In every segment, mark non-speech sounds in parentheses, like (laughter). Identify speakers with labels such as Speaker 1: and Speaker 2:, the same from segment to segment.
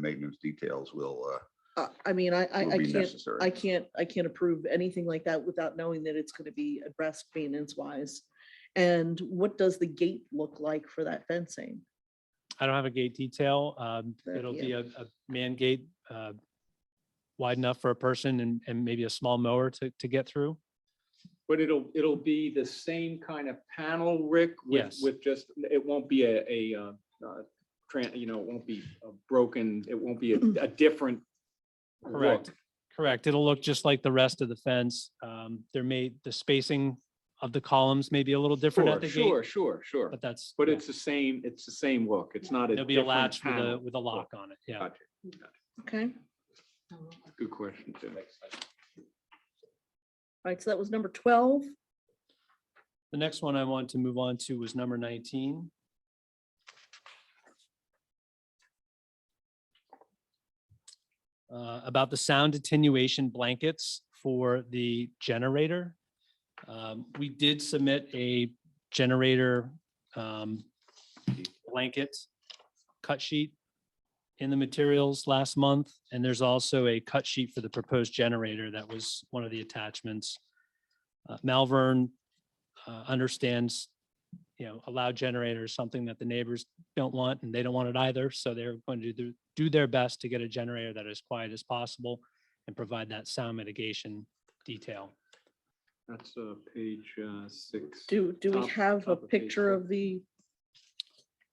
Speaker 1: maintenance details will, uh,
Speaker 2: I, I mean, I, I, I
Speaker 1: will be
Speaker 2: can't,
Speaker 1: necessary.
Speaker 2: I can't, I can't approve anything like that without knowing that it's gonna be addressed maintenance wise. And what does the gate look like for that fencing?
Speaker 3: I don't have a gate detail. Um,
Speaker 2: There-
Speaker 3: it'll
Speaker 2: yeah.
Speaker 3: be a, a man gate, uh, wide enough for a person and, and maybe a small mower to, to get through.
Speaker 4: But it'll, it'll be the same kind of panel, Rick? with-
Speaker 3: Yes.
Speaker 4: With just, it won't be a, a, uh, uh, tran- you know, it won't be a broken, it won't be
Speaker 5: Mm.
Speaker 4: a, a different.
Speaker 3: Correct.
Speaker 4: look.
Speaker 3: Correct. It'll look just like the rest of the fence. Um, there may, the spacing of the columns may be a little different at
Speaker 4: Sure,
Speaker 3: the gate,
Speaker 4: sure, sure, sure.
Speaker 3: but that's.
Speaker 4: But
Speaker 3: yeah.
Speaker 4: it's the same, it's the same look. It's not a.
Speaker 3: There'll be a
Speaker 4: different
Speaker 3: latch with a,
Speaker 4: panel.
Speaker 3: with a lock on it. Yeah.
Speaker 4: Gotcha.
Speaker 2: Okay,
Speaker 4: Good question, Tim.
Speaker 2: right, so that was number twelve.
Speaker 3: The next one I wanted to move on to was number nineteen. Uh, about the sound attenuation blankets for the generator. Um, we did submit a generator, um, blanket cut sheet in the materials last month, and there's also a cut sheet for the proposed generator that was one of the attachments. Uh, Malvern uh, understands, you know, a loud generator is something that the neighbors don't want and they don't want it either. So they're going to do, do their best to get a generator that is quiet as possible and provide that sound mitigation detail.
Speaker 4: That's uh, page uh, six.
Speaker 2: Do, do we
Speaker 4: Top-
Speaker 2: have a
Speaker 4: top of page
Speaker 2: picture
Speaker 4: four.
Speaker 2: of the,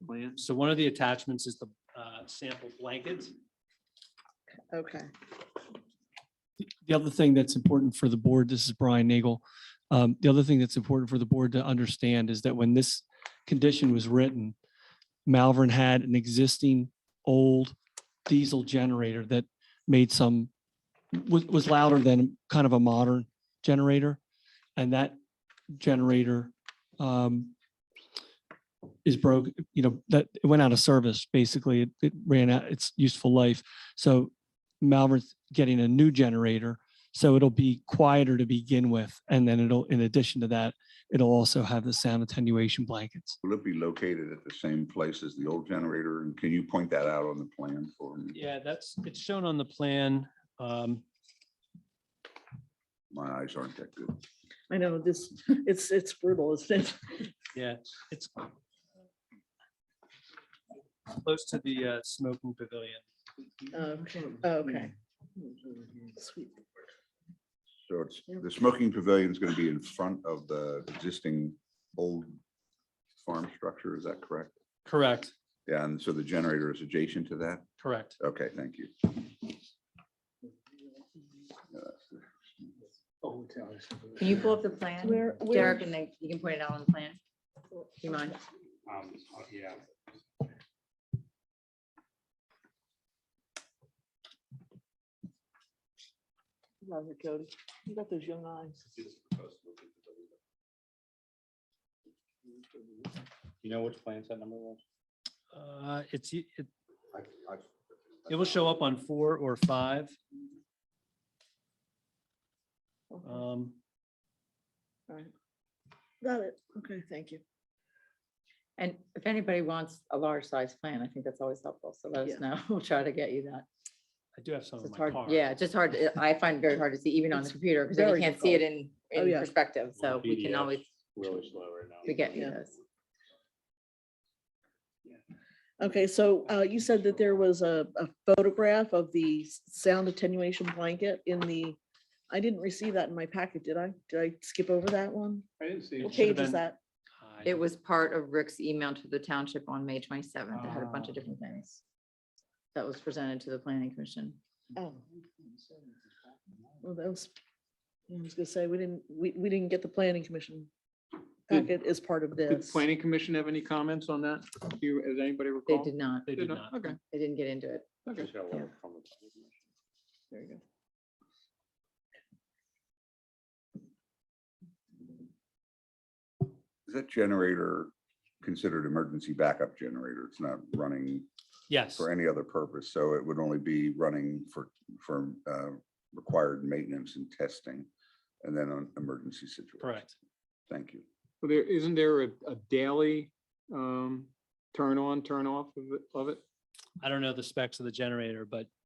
Speaker 4: Plan.
Speaker 3: So one of the attachments is the uh, sample blanket.
Speaker 2: okay,
Speaker 6: The other thing that's important for the board, this is Brian Nagel. Um, The other thing that's important for the board to understand is that when this condition was written, Malvern had an existing old diesel generator that made some, was, was louder than kind of a modern generator. And that generator um, is broke, you know, that it went out of service, basically. It- It ran out its useful life. So Malvern's getting a new generator, so it'll be quieter to begin with. And then it'll, in addition to that, it'll also have the sound attenuation blankets.
Speaker 1: Will it be located at the same place as the old generator? And can you point that out on the plan for me?
Speaker 3: Yeah, that's, it's shown on the plan. Um,
Speaker 1: My eyes aren't that good.
Speaker 2: I know this, it's, it's brutal, isn't it?
Speaker 3: Yeah, it's close to the uh, smoking pavilion.
Speaker 2: Okay, Um, okay. Sweet.
Speaker 1: So it's,
Speaker 2: Yeah.
Speaker 1: the smoking pavilion is going to be in front of the existing old farm structure, is that correct?
Speaker 3: Correct,
Speaker 1: Yeah, and so the generator is adjacent to that?
Speaker 3: correct.
Speaker 1: Okay, thank you. Uh,
Speaker 5: Can you pull up the plan,
Speaker 2: Where, where,
Speaker 5: Derek, and then you can point it out on the plan? Do you mind?
Speaker 7: Um, oh, yeah.
Speaker 2: Love it, Cody. You got those young eyes.
Speaker 7: You know which plan set number was?
Speaker 3: Uh, It's, it It will show up on four or five.
Speaker 4: Uh,
Speaker 2: Okay, all
Speaker 3: Um,
Speaker 2: right. Got it. Okay, thank you.
Speaker 5: And if anybody wants a large size plan, I think that's always helpful, so let
Speaker 2: Yeah.
Speaker 5: us know, (laughs) we'll try to get you that.
Speaker 3: I do have some
Speaker 5: It's
Speaker 3: in
Speaker 5: just
Speaker 3: Oh, my
Speaker 5: hard,
Speaker 3: car.
Speaker 5: yeah, it's just hard, to- I find it very hard to see even on the
Speaker 2: It's
Speaker 5: computer, because then
Speaker 2: very
Speaker 5: you can't see it in,
Speaker 2: Oh, yeah.
Speaker 5: in perspective, so we can
Speaker 7: PDF.
Speaker 5: always,
Speaker 7: Really slow right now.
Speaker 5: we get you
Speaker 2: Yeah.
Speaker 5: those.
Speaker 2: Okay, so uh, you said that there was a a photograph of the s- sound attenuation blanket in the, I didn't receive that in my packet, did I? Did I skip over that one?
Speaker 4: I didn't see.
Speaker 2: What
Speaker 4: it.
Speaker 3: should have
Speaker 2: page is
Speaker 3: been-
Speaker 2: that?
Speaker 3: I
Speaker 5: It
Speaker 3: don't-
Speaker 5: was part of Rick's email to the township on May twenty-seventh, it had a
Speaker 3: Ah.
Speaker 5: bunch of different things that was presented to the planning commission.
Speaker 2: Oh. Well, that was, I was gonna say, we didn't, we, we didn't get the planning commission
Speaker 4: Did-
Speaker 2: packet as part of
Speaker 4: Did
Speaker 2: this.
Speaker 4: the planning commission have any comments on that? Do you, does anybody
Speaker 5: They
Speaker 4: recall?
Speaker 5: did not,
Speaker 3: They
Speaker 4: Did
Speaker 3: did
Speaker 4: not?
Speaker 3: not.
Speaker 4: Okay,
Speaker 5: they didn't get into it.
Speaker 4: okay.
Speaker 7: Just got a letter from the-
Speaker 2: There you go.
Speaker 1: Is that generator considered emergency backup generator? It's not running
Speaker 3: Yes,
Speaker 1: for any other purpose, so it would only be running for, for uh, required maintenance and testing, and then on emergency situations.
Speaker 3: correct.
Speaker 1: Thank you.
Speaker 4: Well, there, isn't there a, a daily um, turn on, turn off of it, of it?
Speaker 3: I don't know the specs of the generator, but